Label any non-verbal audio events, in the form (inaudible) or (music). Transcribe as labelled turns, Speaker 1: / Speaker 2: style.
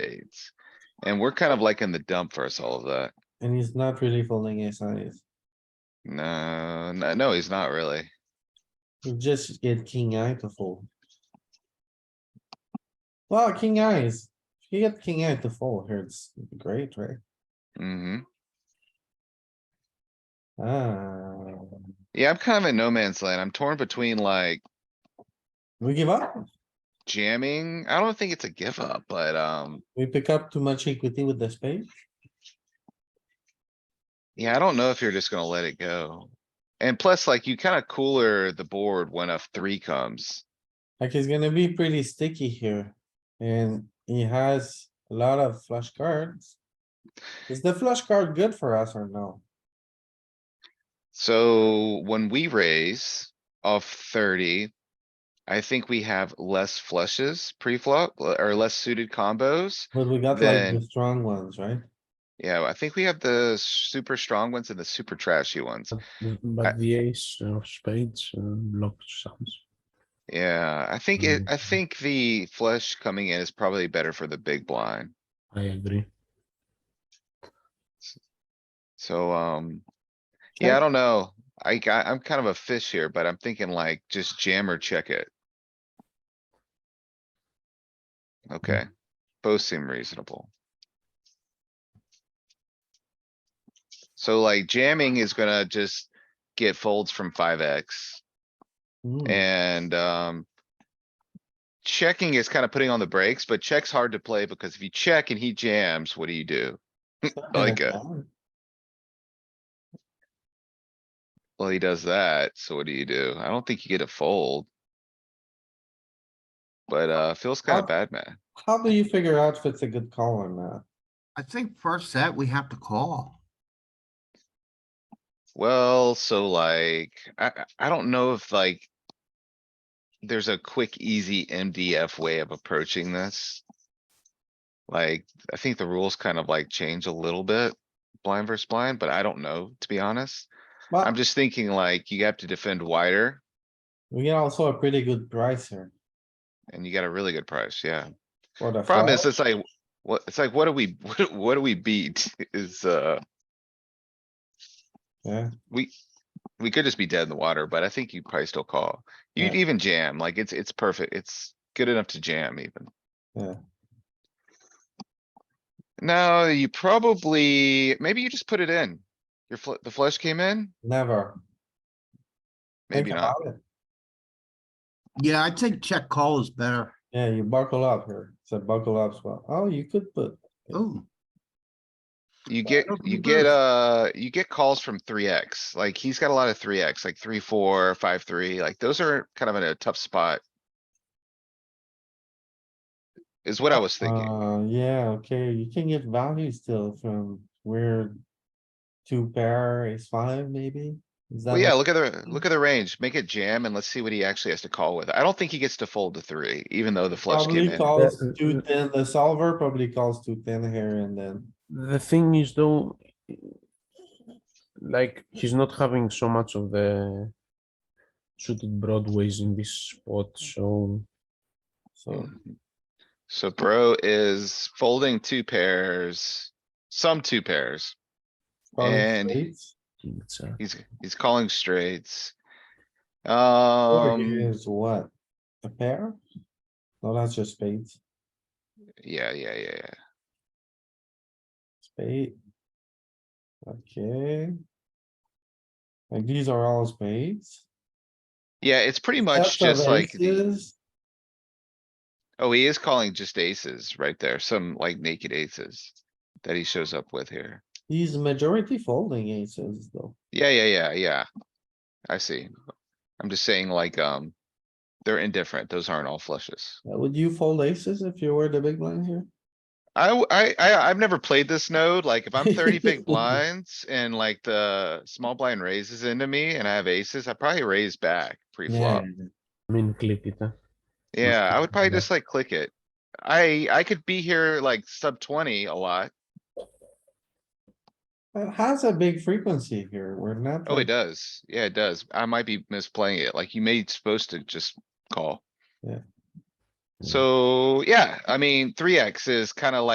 Speaker 1: spades. And we're kind of like in the dump versus all of that.
Speaker 2: and he's not really folding ace high.
Speaker 1: No, no, no, he's not really.
Speaker 2: You just get king eye to fold. Well, king eyes, if you get king eye to fold here, it's great, right?
Speaker 1: hmm
Speaker 2: Ah,
Speaker 1: Yeah, I'm kind of in no man's land. I'm torn between like
Speaker 2: we give up,
Speaker 1: jamming. I don't think it's a give up, but, um,
Speaker 2: we pick up too much equity with the spade.
Speaker 1: yeah, I don't know if you're just gonna let it go. And plus, like, you kinda cooler the board when a three comes.
Speaker 2: Like he's gonna be pretty sticky here and he has a lot of flush cards. Is the flush card good for us or no?
Speaker 1: So when we raise off thirty, I think we have less flushes pre-flop or less suited combos.
Speaker 2: But we got like the
Speaker 1: Then-
Speaker 2: strong ones, right?
Speaker 1: Yeah, I think we have the super strong ones and the super trashy
Speaker 2: Oh.
Speaker 1: ones. I-
Speaker 3: But the ace of spades uh, blocks some.
Speaker 1: Yeah, I think it, I
Speaker 3: Mhm.
Speaker 1: think the flush coming in is probably better for the big blind.
Speaker 3: I agree.
Speaker 1: So, um, yeah, I don't know. I, ca- I'm kind of a fish here, but I'm thinking like just jam or check it. Okay, both seem reasonable. So like jamming is gonna just get folds from five X.
Speaker 3: Mm.
Speaker 2: Hmm,
Speaker 1: And, um. Checking is kind of putting on the brakes, but check's hard to play because if you check and he jams, what do you do?
Speaker 2: it's not
Speaker 1: like
Speaker 2: gonna
Speaker 1: a-
Speaker 2: count.
Speaker 1: Well, he does that, so what do you do? I don't think you get a fold. But, uh, feels kind
Speaker 2: Oh.
Speaker 1: of bad, man.
Speaker 2: How do you figure out if it's a good call or not?
Speaker 4: I think first set, we have to call.
Speaker 1: Well, so like, I, I- I don't know if like. There's a quick, easy MDF way of approaching this. Like, I think the rules kind of like change a little bit, blind versus blind, but I don't know, to be honest.
Speaker 2: Well,
Speaker 4: Uh,
Speaker 1: I'm just thinking like, you have to defend wider
Speaker 2: we get also a pretty good price here.
Speaker 1: and you got a really good price, yeah.
Speaker 2: for the
Speaker 1: Problem is,
Speaker 2: flop.
Speaker 1: it's like, what, it's like, what do we, (laughs) what, do- what do we beat is, uh,
Speaker 2: Yeah,
Speaker 1: we. We could just be dead in the water, but I think you probably still call. You'd
Speaker 2: Yeah.
Speaker 1: even jam, like it's, it's perfect. It's good enough to jam even.
Speaker 2: Yeah.
Speaker 1: No, you probably, maybe you just put it in. Your fl- the flush came in,
Speaker 2: never. Think
Speaker 1: maybe not.
Speaker 2: about it.
Speaker 4: Yeah, I think check call is better.
Speaker 2: Yeah, you buckle up here. It's a buckle up spot. Oh, you could put,
Speaker 4: Ooh,
Speaker 1: You get,
Speaker 4: don't
Speaker 1: you
Speaker 4: think
Speaker 1: get,
Speaker 4: there's-
Speaker 1: uh, you get calls from three X, like he's got a lot of three X, like three, four, five, three, like those are kind of in a tough spot. Is what I was thinking.
Speaker 2: uh, yeah, okay, you can get value still from weird. Two pair, ace five, maybe? Is that
Speaker 1: Well, yeah,
Speaker 2: what-
Speaker 1: look at the, look at the range, make it jam and let's see what he actually has to call with. I don't think he gets to fold to three, even though the flush came
Speaker 2: Probably
Speaker 1: in.
Speaker 2: calls
Speaker 3: Yeah, uh,
Speaker 2: two
Speaker 3: uh,
Speaker 2: ten, the solver probably calls two ten here and then,
Speaker 3: The thing is though, like he's not having so much of the suited broadways in this spot, so
Speaker 2: so
Speaker 1: Hmm. So bro is folding two pairs, some two pairs.
Speaker 2: calling
Speaker 1: And-
Speaker 2: straights.
Speaker 3: it's a
Speaker 1: He's, he's calling straights.
Speaker 2: Or
Speaker 1: Um,
Speaker 2: is what? A pair? No, that's just spades,
Speaker 1: yeah, yeah, yeah, yeah.
Speaker 2: spade. Okay. Like these are all spades.
Speaker 1: Yeah, it's pretty much
Speaker 2: Sets of
Speaker 1: just like, the-
Speaker 2: aces.
Speaker 1: oh, he is calling just aces right there, some like naked aces that he shows up with here.
Speaker 2: He's majority folding aces though.
Speaker 1: Yeah, yeah, yeah, yeah. I see. I'm just saying like, um, they're indifferent. Those aren't all flushes.
Speaker 2: Uh, Would you fold aces if you were the big blind here?
Speaker 1: I, w- I, I, have never played this node. Like if I'm thirty big blinds and like the small blind raises into me and I have aces, I probably raise back pre-flop.
Speaker 3: I mean click it. Huh?
Speaker 1: Yeah, I would probably
Speaker 3: Yeah.
Speaker 1: just like click it. I, I could be here like sub twenty a lot.
Speaker 2: It has a big frequency here. We're not.
Speaker 1: Oh, it
Speaker 2: like-
Speaker 1: does. Yeah, it does. I might be misplaying it. Like you made supposed to just call. So, yeah, I mean, three X is kinda like.